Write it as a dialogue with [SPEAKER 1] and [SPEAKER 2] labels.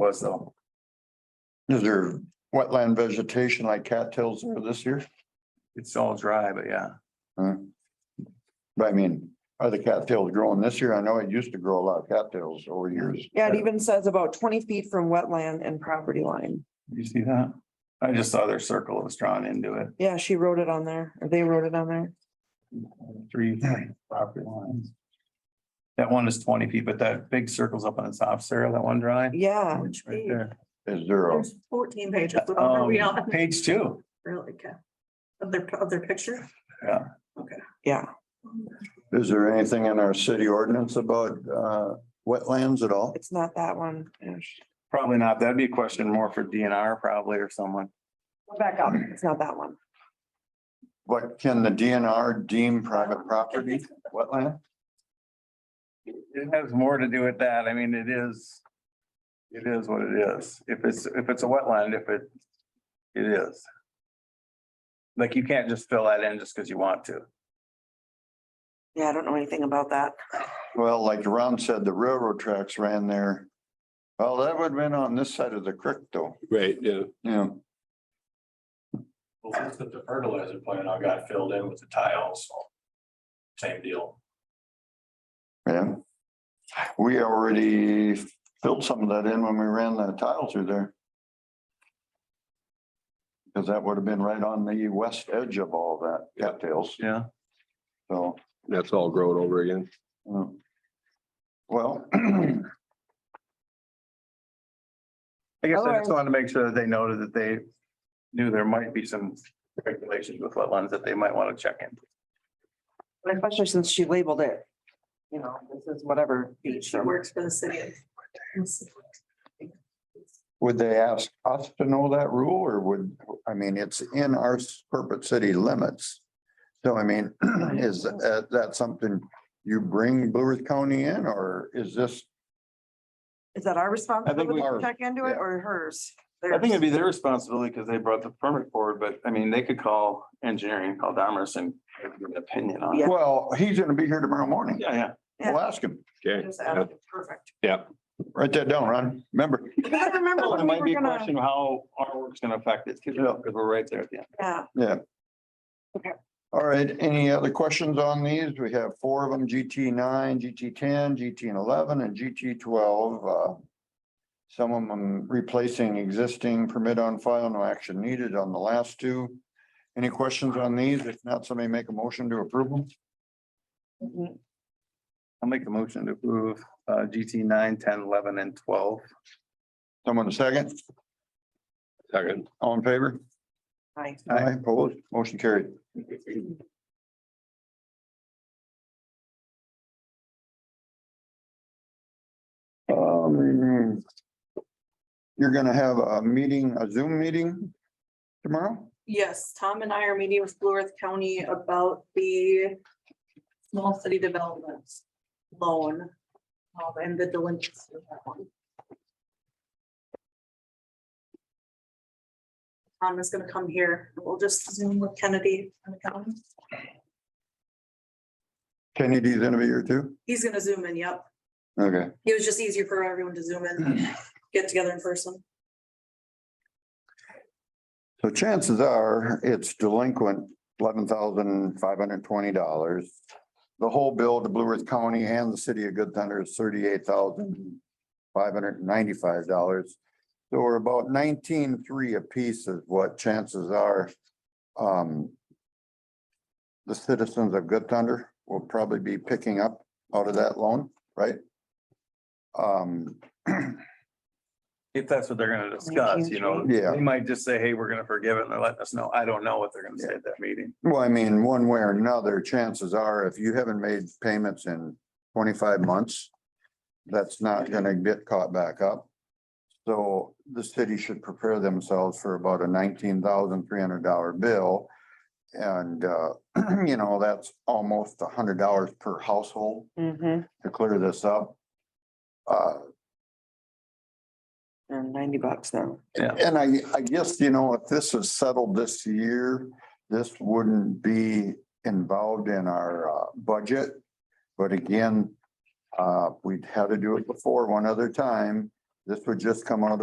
[SPEAKER 1] was though.
[SPEAKER 2] Is there wetland vegetation like cattails there this year?
[SPEAKER 1] It's all dry, but yeah,
[SPEAKER 2] But I mean, are the cattails growing this year? I know it used to grow a lot of cattails over years.
[SPEAKER 3] Yeah, it even says about twenty feet from wetland and property line.
[SPEAKER 1] you see that? I just saw their circle was drawn into it,
[SPEAKER 3] Yeah, she wrote it on there, or they wrote it on there.
[SPEAKER 1] three property lines. That one is twenty feet, but that big circle's up on the top, Sarah, that one dry.
[SPEAKER 3] Yeah,
[SPEAKER 1] Right there.
[SPEAKER 2] Is there a,
[SPEAKER 4] There's fourteen pages. Remember, we all
[SPEAKER 1] Um,
[SPEAKER 4] have to
[SPEAKER 1] Page two,
[SPEAKER 4] really okay. Of their, of their picture.
[SPEAKER 3] yeah.
[SPEAKER 2] is there anything in our city ordinance about uh wetlands at all?
[SPEAKER 3] It's not that one. Ish.
[SPEAKER 1] probably not. That'd be a question more for DNR probably or someone.
[SPEAKER 3] Go Back up. It's not that one.
[SPEAKER 2] What can the DNR deem private property wetland?
[SPEAKER 1] It has more to do with that. I mean, it is. It is what it is. If it's, if it's a wetland, if it, it is. Like you can't just fill that in just because you want to.
[SPEAKER 3] Yeah, I don't know anything about that.
[SPEAKER 2] Well, like Ron said, the railroad tracks ran there. Well, that would have been on this side of the creek though,
[SPEAKER 5] Right, yeah.
[SPEAKER 2] Yeah.
[SPEAKER 6] Well, since the fertilizer plant I got filled in with the tile, so same deal.
[SPEAKER 2] Yeah. We already filled some of that in when we ran the tile through there. Because that would have been right on the west edge of all that cattails,
[SPEAKER 1] Yeah.
[SPEAKER 2] so.
[SPEAKER 5] That's all growing over again.
[SPEAKER 2] uh, Well,
[SPEAKER 1] I guess I
[SPEAKER 3] Otherwise-
[SPEAKER 1] just wanted to make sure that they noted that they knew there might be some regulations with wetlands that they might want to check in.
[SPEAKER 3] But Especially since she labeled it. You know, this is whatever. beach
[SPEAKER 4] She
[SPEAKER 3] or-
[SPEAKER 4] works for the city.
[SPEAKER 2] would they ask us to know that rule or would, I mean, it's in our corporate city limits. So I mean, is that that something you bring Blue Earth County in or is this?
[SPEAKER 3] Is that our responsibility to
[SPEAKER 2] Ours,
[SPEAKER 3] check into it
[SPEAKER 2] yeah.
[SPEAKER 3] or hers?
[SPEAKER 1] I think it'd
[SPEAKER 3] Theirs.
[SPEAKER 1] be their responsibility because they brought the permit forward, but I mean, they could call engineering, call Dahmer's and give an opinion on it.
[SPEAKER 3] Yeah.
[SPEAKER 2] Well, he's gonna be here tomorrow morning.
[SPEAKER 1] Yeah, yeah.
[SPEAKER 3] Yeah.
[SPEAKER 2] We'll ask him.
[SPEAKER 5] Okay.
[SPEAKER 4] Just add it. Perfect.
[SPEAKER 2] Write that down, Ron. Remember,
[SPEAKER 3] I can't remember
[SPEAKER 1] Well, There
[SPEAKER 3] when we
[SPEAKER 1] might be a
[SPEAKER 3] were gonna-
[SPEAKER 1] question of how our work's gonna affect it, because we're right there at the end.
[SPEAKER 3] Yeah,
[SPEAKER 2] all right, any other questions on these? We have four of them, GT nine, GT ten, GT eleven, and GT twelve. Uh, Some of them replacing existing permit on file, no action needed on the last two. Any questions on these? If not, somebody make a motion to approve them.
[SPEAKER 3] Mhm.
[SPEAKER 1] I'll make a motion to approve uh GT nine, ten, eleven and twelve.
[SPEAKER 2] Someone a second,
[SPEAKER 5] Second.
[SPEAKER 2] all in favor?
[SPEAKER 3] Aye.
[SPEAKER 2] Aye, opposed, motion carried. Um, You're gonna have a meeting, a Zoom meeting tomorrow?
[SPEAKER 4] Yes, Tom and I are meeting with Blue Earth County about the small city developments loan. um, and the delinquency of that one. Tom is gonna come here. We'll just zoom with Kennedy and the county.
[SPEAKER 2] Kennedy's gonna be here too?
[SPEAKER 4] He's gonna zoom in, yep.
[SPEAKER 2] Okay,
[SPEAKER 4] It was just easier for everyone to zoom in, and get together in person.
[SPEAKER 2] so chances are it's delinquent eleven thousand five hundred twenty dollars. The whole bill to Blue Earth County and the city of Good Thunder is thirty-eight thousand five hundred ninety-five dollars. So we're about nineteen-three apiece is what chances are. um, The citizens of Good Thunder will probably be picking up out of that loan, right? Um,
[SPEAKER 1] If that's what they're gonna discuss, you know,
[SPEAKER 2] Yeah.
[SPEAKER 1] they might just say, hey, we're gonna forgive it and they're letting us know. I don't know what they're gonna say at that meeting.
[SPEAKER 2] Well, I mean, one way or another, chances are, if you haven't made payments in twenty-five months, that's not gonna get caught back up. So the city should prepare themselves for about a nineteen thousand three hundred dollar bill. And, uh, you know, that's almost hundred dollars per household
[SPEAKER 3] Mhm.
[SPEAKER 2] to clear this up. Uh,
[SPEAKER 3] And ninety bucks now.
[SPEAKER 2] And I, I guess, you know, if this is settled this year, this wouldn't be involved in our uh, budget. But again, uh, we'd had to do it before one other time. This would just come out of